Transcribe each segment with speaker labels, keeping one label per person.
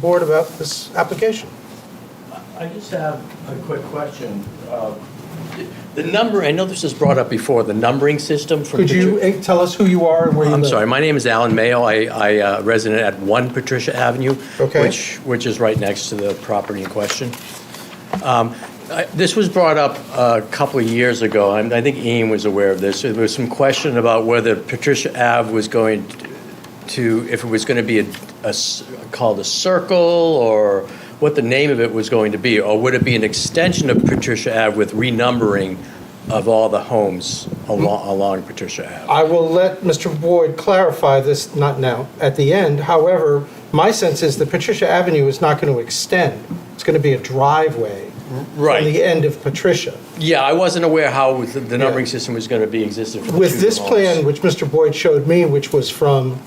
Speaker 1: board about this application.
Speaker 2: I just have a quick question. Uh, The number, I know this was brought up before, the numbering system for.
Speaker 1: Could you eh, tell us who you are and where you live?
Speaker 2: I'm sorry, my name is Alan Mayo. I, I uh, resident at 1 Patricia Avenue.
Speaker 1: Okay.
Speaker 2: Which, which is right next to the property in question. Um, I- This was brought up a couple of years ago, and I think Ian was aware of this. There was some question about whether Patricia Ave was going to, if it was going to be a- a s- called a circle, or what the name of it was going to be, or would it be an extension of Patricia Ave with renumbering of all the homes along, along Patricia Ave?
Speaker 1: I will let Mr. Boyd clarify this, not now, at the end. However, my sense is that Patricia Avenue is not going to extend. It's going to be a driveway. From
Speaker 2: Right.
Speaker 1: the end of Patricia.
Speaker 2: Yeah, I wasn't aware how the- the numbering system was going to be existed for the
Speaker 1: With
Speaker 2: two
Speaker 1: this
Speaker 2: homes.
Speaker 1: plan, which Mr. Boyd showed me, which was from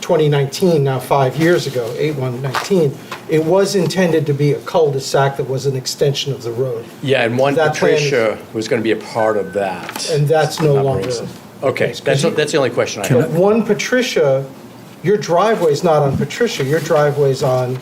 Speaker 1: 2019, now five years ago, 8119, it was intended to be a cul-de-sac that was an extension of the road.
Speaker 2: Yeah, and one
Speaker 1: that plan is-
Speaker 2: Patricia was going to be a part of that.
Speaker 1: And that's no
Speaker 2: numbering
Speaker 1: longer-
Speaker 2: system. Okay, that's, that's the only question I
Speaker 1: But
Speaker 2: have.
Speaker 1: one Patricia, your driveway's not on Patricia, your driveway's on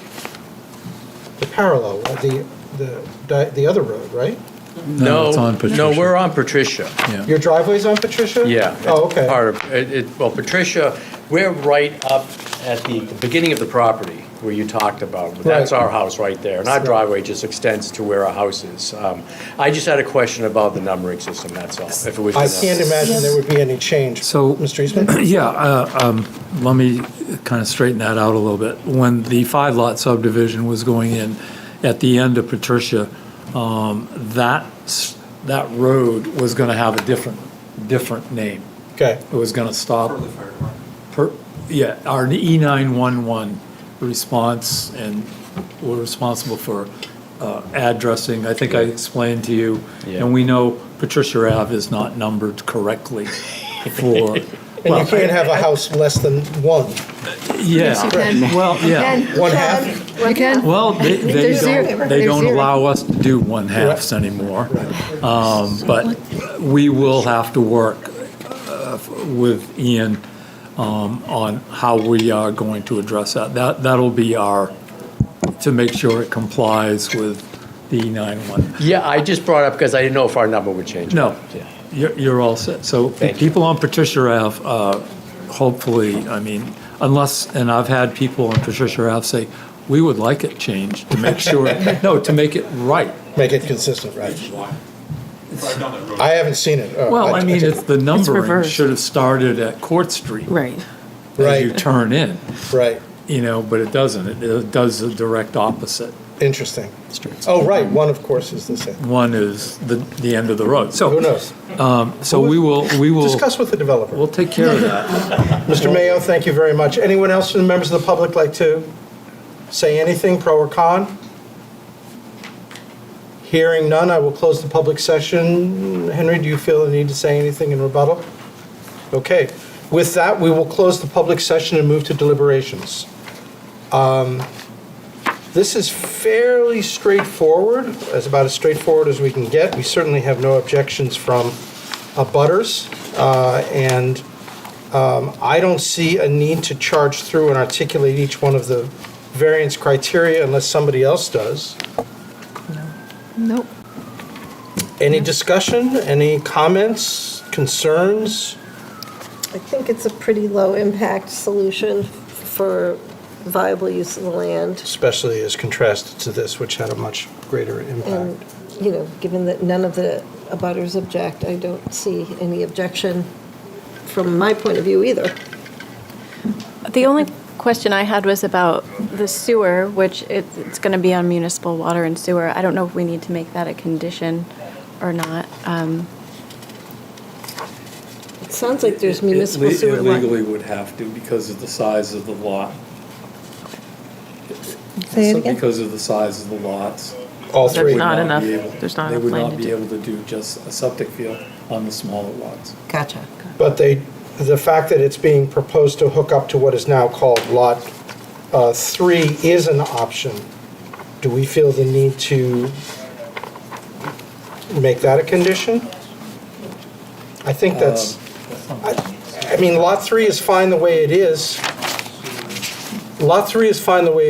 Speaker 1: the parallel, uh, the, the, di- the other road, right?
Speaker 2: No,
Speaker 3: it's on
Speaker 2: no,
Speaker 3: Patricia.
Speaker 2: we're on Patricia.
Speaker 3: Yeah.
Speaker 1: Your driveway's on Patricia?
Speaker 2: Yeah.
Speaker 1: Oh,
Speaker 2: it's
Speaker 1: okay.
Speaker 2: Part of, it, it- well, Patricia, we're right up at the beginning of the property where you talked about. That's
Speaker 1: Right.
Speaker 2: our house right there, and our
Speaker 1: Right.
Speaker 2: driveway just extends to where our house is. Um, I just had a question about the numbering system, that's all, if it was.
Speaker 1: I
Speaker 2: gonna-
Speaker 1: can't imagine there would be any change.
Speaker 3: So-
Speaker 1: Mr. Eastman?
Speaker 3: Yeah, uh, um, let me kind of straighten that out a little bit. When the five lot subdivision was going in at the end of Patricia, um, that, s- that road was going to have a different, different name.
Speaker 1: Okay,
Speaker 3: It was going to stop. Per, yeah, our E nine one one response, and we're responsible for uh, addressing. I think I explained to you,
Speaker 2: Yeah.
Speaker 3: and we know Patricia Ave is not numbered correctly for.
Speaker 1: and you
Speaker 3: well,
Speaker 1: can't have a house less than one.
Speaker 3: Yeah.
Speaker 4: you can.
Speaker 3: Well, yeah.
Speaker 1: One
Speaker 4: You can.
Speaker 3: Well, they, they
Speaker 4: There's zero.
Speaker 3: don't, they
Speaker 4: There's
Speaker 3: don't
Speaker 4: zero.
Speaker 3: allow us to do one halves anymore. Um, But we will have to work uh, with Ian um, on how we are going to address that. That, that'll be our, to make sure it complies with the E91.
Speaker 2: Yeah, I just brought up because I didn't know if our number would change. or
Speaker 3: No,
Speaker 2: not. Yeah.
Speaker 3: you're, you're all set. So the
Speaker 2: Thank you.
Speaker 3: people on Patricia Ave, uh, hopefully, I mean, unless, and I've had people on Patricia Ave say, we would like it changed to make sure, no, to make it right.
Speaker 1: Make it consistent, right?
Speaker 5: Drive down that road.
Speaker 1: I haven't seen it. Oh,
Speaker 3: Well, I mean, it's, the numbering
Speaker 4: reversed.
Speaker 3: should have started at Court Street.
Speaker 4: Right.
Speaker 3: As you
Speaker 1: Right.
Speaker 3: turn in,
Speaker 1: Right,
Speaker 3: you know, but it doesn't. It- It does the direct opposite.
Speaker 1: interesting. Oh, right, one, of course, is the same.
Speaker 3: One is the, the end of the road.
Speaker 1: Who
Speaker 3: So,
Speaker 1: knows?
Speaker 3: so we will, we will,
Speaker 1: Discuss with the developer.
Speaker 3: we'll take care of that.
Speaker 1: Mr. Mayo, thank you very much. Anyone else from the members of the public like to say anything, pro or con? Hearing none, I will close the public session. Henry, do you feel the need to say anything in rebuttal? Okay. With that, we will close the public session and move to deliberations. Um, This is fairly straightforward, as about as straightforward as we can get. We certainly have no objections from abutters, uh, and I don't see a need to charge through and articulate each one of the variance criteria unless somebody else does.
Speaker 4: Nope.
Speaker 1: Any discussion, any comments, concerns?
Speaker 6: I think it's a pretty low-impact solution for viable use of the land,
Speaker 1: Especially as contrasted to this, which had a much greater impact.
Speaker 6: you know, given that none of the abutters object, I don't see any objection from my point of view either.
Speaker 7: The only question I had was about the sewer, which it- it's going to be on municipal water and sewer. I don't know if we need to make that a condition or not. Um,
Speaker 6: It sounds like there's
Speaker 3: It- it le-
Speaker 6: municipal sewer
Speaker 3: It
Speaker 6: line.
Speaker 3: legally would have to because of the size of the lot.
Speaker 4: Say it
Speaker 3: So
Speaker 4: again.
Speaker 3: Because of the size of the lots.
Speaker 1: All
Speaker 3: they
Speaker 1: three.
Speaker 3: would
Speaker 4: not
Speaker 3: be
Speaker 4: enough-
Speaker 3: able-
Speaker 4: there's not enough
Speaker 3: They would
Speaker 4: land
Speaker 3: not
Speaker 4: to
Speaker 3: be
Speaker 4: do.
Speaker 3: able to do just a septic field on the smaller lots.
Speaker 6: Gotcha.
Speaker 1: But they, the fact that it's being proposed to hook up to what is now called Lot uh, 3 is an option. Do we feel the need to make that a condition? I think that's, I I mean, Lot 3 is fine the way it is. Lot 3 is fine the way